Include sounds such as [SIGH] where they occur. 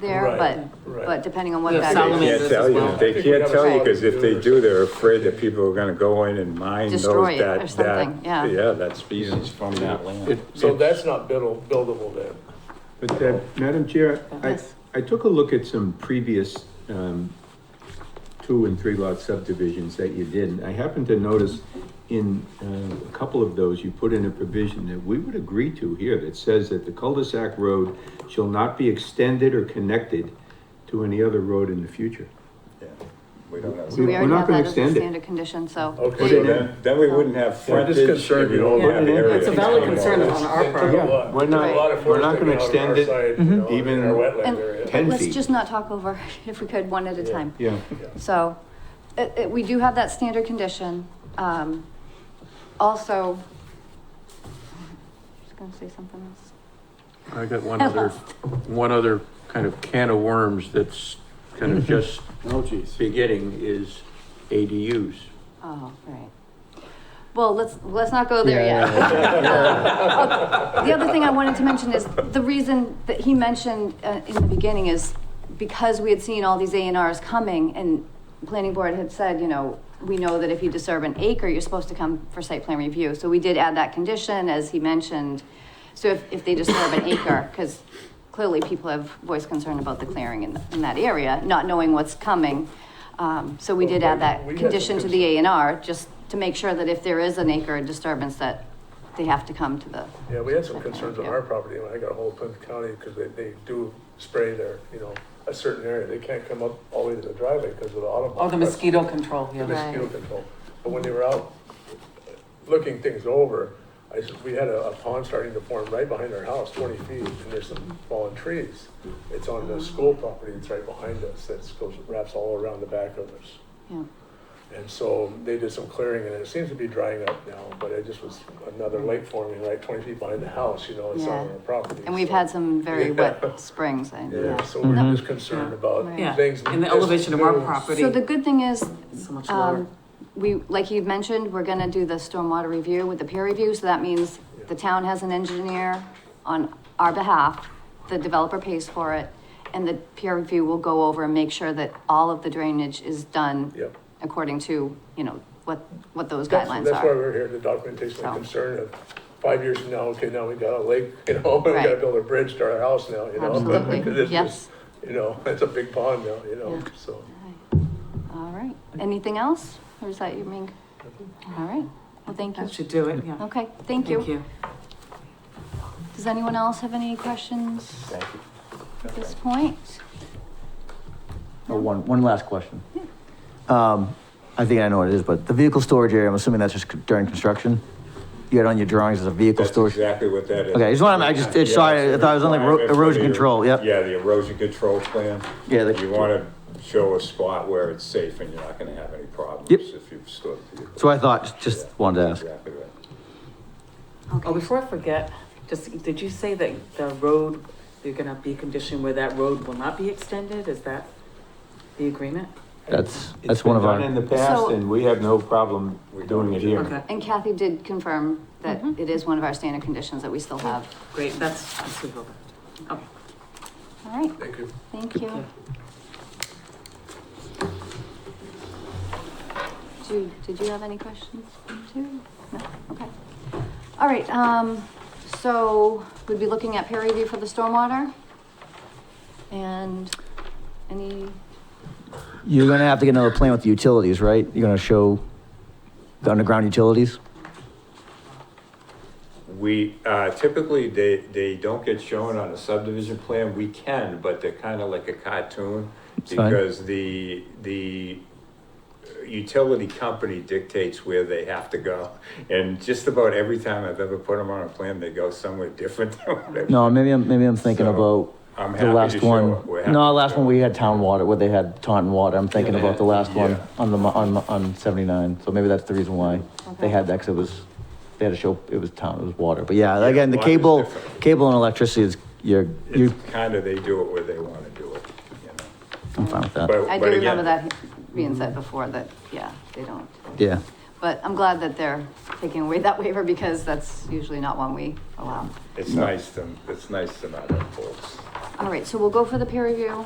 there, Right, but, right. but depending on what Yeah, that. Solomon They Salamanders can't as tell well. you, I they think we can't have a tell you, because solid if they rule. do, they're afraid that people are gonna go in and mine those Destroy it or that, something, that, yeah. yeah, that species from that land. So that's not buildable, buildable then. But, uh, Madam Chair, I, Oh, Yes. I took a look at some previous, um, two and three lot subdivisions that you did, and I happened to notice in, uh, a couple of those, you put in a provision that we would agree to here that says that the cul-de-sac road shall not be extended or connected to any other road in the future. Yeah, We don't have. We- We we're already not have gonna that as a extend it. standard condition, so. Okay. So then, then we wouldn't have Yeah, I'm just frontage. and concerned we you don't wouldn't have have any- area It's a to valid do all concern that. on our It took a part. Mm-hmm. lot- We're not- a lot of we're forest not gonna taken out on extend our it side, you know, even- in our And wetland area. Ten let's feet. just not talk over, [LAUGHS] if we could, one at a Yeah. time. Yeah. So, it, it, we do have that standard condition, um, also. [LAUGHS] I was gonna say something else. I got [LAUGHS] one other, Oh. one other kind of can of worms that's kind Mm-hmm. of just Oh, geez. beginning is ADUs. Oh, right. Well, let's, let's not go there yet. [LAUGHS] Uh, The other thing I wanted to mention is, the reason that he mentioned uh, in the beginning is because we had seen all these A and Rs coming and planning board had said, you know, we know that if you disturb an acre, you're supposed to come for site plan review. So we did add that condition, as he mentioned. So if, if they disturb an acre, because clearly people have voiced concern about the clearing in, in that area, not knowing what's coming. Um, so we did add that We had some condition to the A and R, just to make sure that if there is an acre disturbance, that they have to come to the Yeah, we had some concerns on our property, when I got a hold of Plymouth County, because they, they do spray their, you know, a certain area, they can't come up all the way to the driveway because of the auto. Oh, the mosquito control, the yeah. Mosquito Right. control, but when they were out looking things over, I said, we had a a pond starting to form right behind our house, twenty feet, and there's some fallen trees. It's on Mm-hmm. the school property, it's right behind us, that goes, wraps all around the back of us. Yeah, And so they did some clearing and it seems to be drying up now, but it just was another lake forming right twenty feet behind the house, you know, it's not on Mm-hmm. Yeah. the property. and we've so- had some [LAUGHS] very wet springs, I know. Yeah, so we're just concerned about Yeah. things. And the elevation of our new- property So the good thing is, is so much lower. um, we, like you mentioned, we're gonna do the stormwater review with the peer review, so that means the town has an engineer on our behalf, the developer pays for it, and the peer review will go over and make sure that all of the drainage is done Yep. according to, you know, what, what those That's- guidelines That's why are. we're here, the documentation So. of concern of five years from now, okay, now we got a lake, [LAUGHS] you know, we gotta Right. build a bridge to our house now, you know? Absolutely, [LAUGHS] 'Cause it's yes. just, You know, it's a big pond now, you know, Yeah. so. All right, anything else, or is that your main? All right, well, thank you. That should do it, yeah. Okay, Oh, thank you. Thank you. Does anyone else have any questions Thank you. at this point? Oh, One, one last question. Um, I think I know what it is, but the vehicle storage area, I'm assuming that's just during construction? You had on your drawings as a vehicle That's storage? exactly what that is. Okay, I just wanted- I just- it's- Yeah, sorry, it's a I thought it was on the ero- requirement for erosion the- control, yep. Yeah, the erosion control plan. Yeah, the- You wanna show a spot where it's safe and you're not gonna have any problems Yep. if you've stored vehicles. So I thought, just wanted to ask. Exactly right. Oh, before I forget, just, did you say that the road, you're gonna be conditioned where that road will not be extended? Is that the agreement? That's, It's that's been one of done our, In the past, So- and we have no problem doing it here. Okay, And Kathy did confirm that it is one of our standard conditions that we still have. great, that's, that's what we'll do. Okay. All right, Thank you. thank you. Jude, did you have any questions too? No, okay. All right, um, so we'd be looking at peer review for the stormwater? And any, you're gonna have to get another plan with the utilities, right? You're gonna show the underground utilities? We, uh, typically, they, they don't get shown on a subdivision plan, we can, but they're kinda like a cartoon. fine. Because the, the utility company dictates where they have to go. And just about every time I've ever put them on a plan, they go somewhere different than what I- No, maybe I'm, maybe I'm thinking So, about I'm happy the to last show one. it. We're happy No, to last show one, it. we had town water, where they had Taunton water. I'm thinking about the last one Yeah. on the, mo- on, mo- on seventy-nine. So maybe that's the reason why Okay. they had that, 'cause it was, they had to show, it was town, it was water. But yeah, Yeah, again, the water's cable, different. cable and electricity is, you're, It's you're, kinda, they do it where they wanna do it, you know. I'm fine with that. But- I do but again, remember that being said before, that, yeah, they don't. Yeah. But I'm glad that they're taking away that waiver because that's usually not one we allow. It's nice to, it's nice to not have bolts. Um, All right, so we'll go for the peer review.